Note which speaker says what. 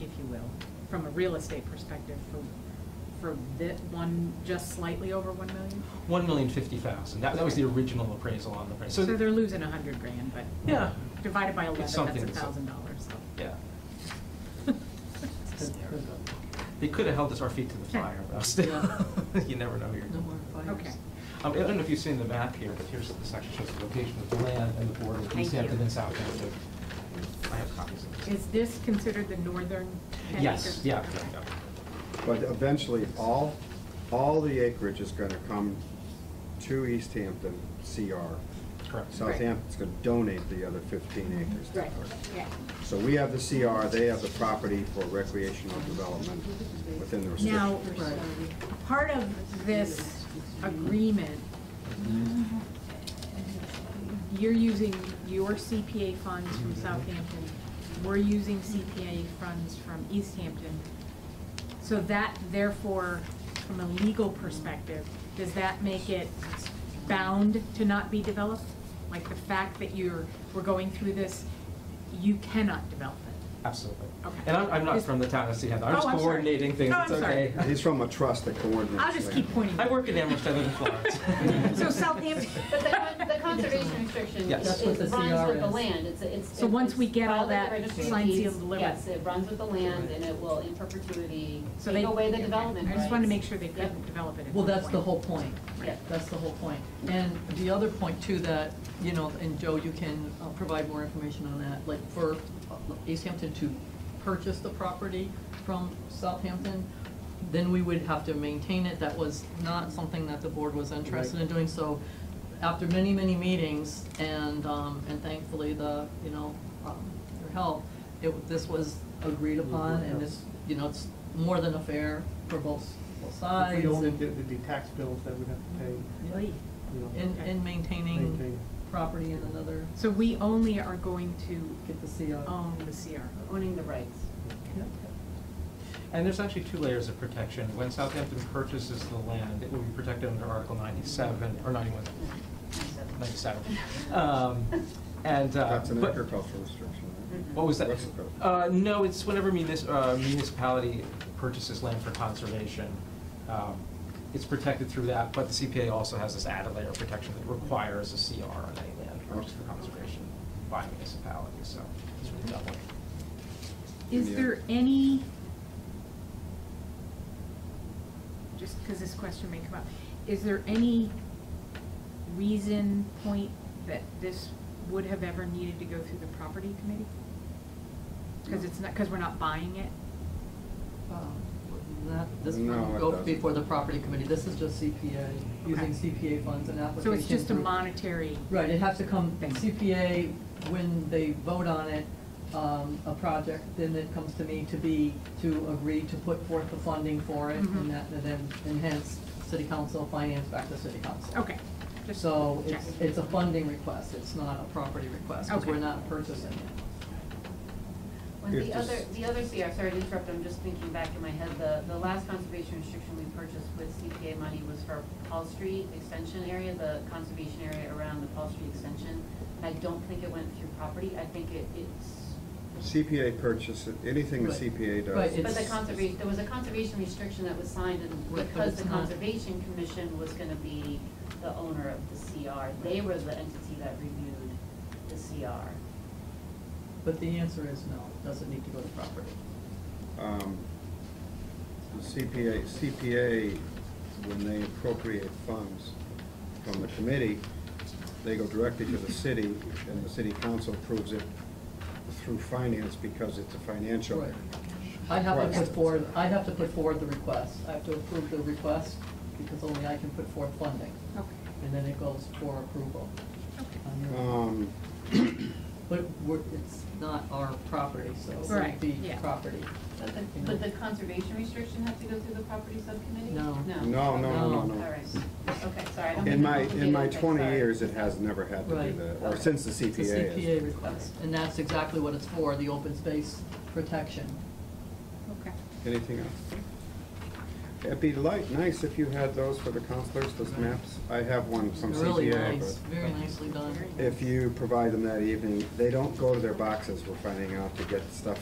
Speaker 1: if you will, from a real estate perspective for, for that one, just slightly over one million?
Speaker 2: One million fifty thousand, that, that was the original appraisal on the price, so.
Speaker 1: So they're losing a hundred grand, but
Speaker 2: Yeah,
Speaker 1: divided by eleven,
Speaker 2: It's
Speaker 1: that's
Speaker 2: something,
Speaker 1: a
Speaker 2: so-
Speaker 1: thousand dollars, so.
Speaker 2: yeah.
Speaker 1: It's hysterical.
Speaker 2: They could have held us our feet to the fire, but still, you never know who you're.
Speaker 3: No more fires.
Speaker 1: Okay.
Speaker 2: Um, I don't know if you've seen the map here, but here's, this actually shows the location of the land and the border between
Speaker 1: Thank you.
Speaker 2: Hampton and Southampton. I have copies of this.
Speaker 1: Is this considered the northern ten
Speaker 2: Yes,
Speaker 1: acres?
Speaker 2: yeah, yeah,
Speaker 1: Okay.
Speaker 2: yeah.
Speaker 4: But eventually, all, all the acreage is gonna come to East Hampton CR.
Speaker 2: Correct.
Speaker 4: Southampton's gonna donate the other fifteen acres. to
Speaker 1: Right,
Speaker 4: us.
Speaker 1: yeah.
Speaker 4: So we have the CR, they have the property for recreational development within the
Speaker 1: Now,
Speaker 4: restrictions.
Speaker 1: part of this agreement, you're using your CPA funds from Southampton, we're using CPA funds from East Hampton. So that therefore, from a legal perspective, does that make it bound to not be developed? Like the fact that you're, we're going through this, you cannot develop it?
Speaker 2: Absolutely.
Speaker 1: Okay.
Speaker 2: And I'm, I'm not
Speaker 1: Is-
Speaker 2: from the town of Sea Heather,
Speaker 1: Oh,
Speaker 2: I'm just
Speaker 1: I'm sorry.
Speaker 2: coordinating things,
Speaker 1: Oh,
Speaker 2: it's
Speaker 1: I'm sorry.
Speaker 2: okay.
Speaker 4: He's from a trust that coordinates.
Speaker 1: I'll just keep
Speaker 4: land.
Speaker 1: pointing.
Speaker 2: I work in Amherst, I live in Florence.
Speaker 1: So Southampton.
Speaker 5: But the, con- the conservation restriction
Speaker 2: Yes.
Speaker 3: That's what
Speaker 5: is-
Speaker 3: the
Speaker 5: runs
Speaker 3: CR
Speaker 5: with the
Speaker 3: is.
Speaker 5: land, it's, it's.
Speaker 1: So once we
Speaker 5: it's
Speaker 1: get all
Speaker 5: filed with
Speaker 1: that
Speaker 5: the registry of
Speaker 1: signed, sealed,
Speaker 5: deeds.
Speaker 1: delivered.
Speaker 5: Yes, it runs with the land and it will in perpetuity
Speaker 1: So they-
Speaker 5: take away the development
Speaker 1: I just wanted to make
Speaker 5: rights.
Speaker 1: sure they couldn't develop it at
Speaker 3: Well,
Speaker 1: that
Speaker 3: that's the
Speaker 1: point.
Speaker 3: whole point.
Speaker 5: Yeah.
Speaker 3: That's the whole point. And the other point too, that, you know, and Joe, you can uh, provide more information on that, like for uh, East Hampton to purchase the property from Southampton, then we would have to maintain it. That was not something that the board was interested in doing, so after many, many meetings and, um, and thankfully the, you know, um, your help, it, this was agreed upon and this, you know, it's more than a fair for both, both sides.
Speaker 6: If we owned
Speaker 3: and-
Speaker 6: it, there'd be tax bills that we'd have to pay,
Speaker 3: Right.
Speaker 6: you know.
Speaker 3: In, in maintaining
Speaker 6: Maintain.
Speaker 3: property in another, Oh,
Speaker 1: So we only are going to
Speaker 3: get the CO.
Speaker 1: own the CRO.
Speaker 5: Owning the rights.
Speaker 2: And there's actually two layers of protection. When Southampton purchases the land, it will be protected under Article 97, or 91, 97. Um, And, uh,
Speaker 4: That's an
Speaker 2: but-
Speaker 4: agricultural restriction. right?
Speaker 1: Mm-hmm.
Speaker 2: What was that?
Speaker 4: What's the code?
Speaker 2: Uh, No, it's whenever munis- uh, municipality purchases land for conservation, um, it's protected through that, but the CPA also has this added layer of protection that requires a CR on any land purchased for conservation by municipality, so it's really doubling.
Speaker 1: Is
Speaker 4: Yeah.
Speaker 1: there any, just because this question may come up, is there any reason, point, that this would have ever needed to go through the property committee? Because it's not, because we're not buying it?
Speaker 3: Um, That, this
Speaker 4: No,
Speaker 3: will
Speaker 4: it
Speaker 3: go
Speaker 4: doesn't.
Speaker 3: before the property committee, this is just CPA, using CPA funds and application.
Speaker 1: So it's just a
Speaker 3: through-
Speaker 1: monetary,
Speaker 3: Right, it has to come,
Speaker 1: Thing.
Speaker 3: CPA, when they vote on it, um, a project, then it comes to me to be, to agree to put forth the funding for it,
Speaker 1: Mhm.
Speaker 3: and that, and then, and hence, city council finance back to city council.
Speaker 1: okay. just
Speaker 3: So
Speaker 1: check.
Speaker 3: it's, it's a funding request, it's not a property request, because
Speaker 1: Okay.
Speaker 3: we're not purchasing it.
Speaker 5: When
Speaker 4: If
Speaker 5: the
Speaker 4: this-
Speaker 5: other, the other CR, sorry to interrupt, I'm just thinking back in my head, the, the last conservation restriction we purchased with CPA money was for Paul Street Extension area, the conservation area around the Paul Street Extension. I don't think it went through property, I think it, it's
Speaker 4: CPA purchase, anything the
Speaker 3: Right.
Speaker 4: CPA
Speaker 3: Right,
Speaker 4: does.
Speaker 3: it-
Speaker 5: But the
Speaker 3: It's-
Speaker 5: conservation, there was a conservation restriction that was signed, and
Speaker 3: Right, but
Speaker 5: because the
Speaker 3: it's not-
Speaker 5: Conservation Commission was gonna be the owner of the CR, they were the entity that reviewed the CR.
Speaker 3: But the answer is no, it doesn't need to go to property.
Speaker 4: um, the CPA, CPA, when they appropriate funds from the committee, they go directly to the city, and the city council approves it through finance because it's a financial.
Speaker 3: Right. I have to put
Speaker 4: Right.
Speaker 3: forward, I have to put forward the request, I have to approve the request, because only I can put forth funding,
Speaker 1: Okay,
Speaker 3: and then it goes for approval.
Speaker 1: okay.
Speaker 3: on your-
Speaker 4: Um,
Speaker 3: But we're, it's not our property, so it
Speaker 1: Right,
Speaker 3: would be
Speaker 1: yeah.
Speaker 3: property.
Speaker 5: But the, but the conservation restriction had to go through the property subcommittee?
Speaker 3: No.
Speaker 4: No,
Speaker 5: No?
Speaker 4: no,
Speaker 3: no,
Speaker 5: Okay.
Speaker 4: no, no.
Speaker 5: All right, okay, sorry. I don't mean
Speaker 4: In
Speaker 5: to
Speaker 4: my,
Speaker 5: complicate
Speaker 4: in my
Speaker 5: it, okay,
Speaker 4: twenty
Speaker 5: sorry.
Speaker 4: years, it has never had to do that, or
Speaker 5: Okay.
Speaker 4: since the
Speaker 3: It's a
Speaker 4: CPA
Speaker 3: CPA
Speaker 4: is.
Speaker 3: request, and that's exactly what it's for, the open space protection.
Speaker 1: Okay.
Speaker 4: Anything else? It'd be light, nice if you had those for the counselors, those maps. I have one from CPA.
Speaker 3: Really nice,
Speaker 4: but-
Speaker 3: very nicely done.
Speaker 1: Very
Speaker 4: if you provide them that evening, they don't go to their boxes, we're finding out to get stuff.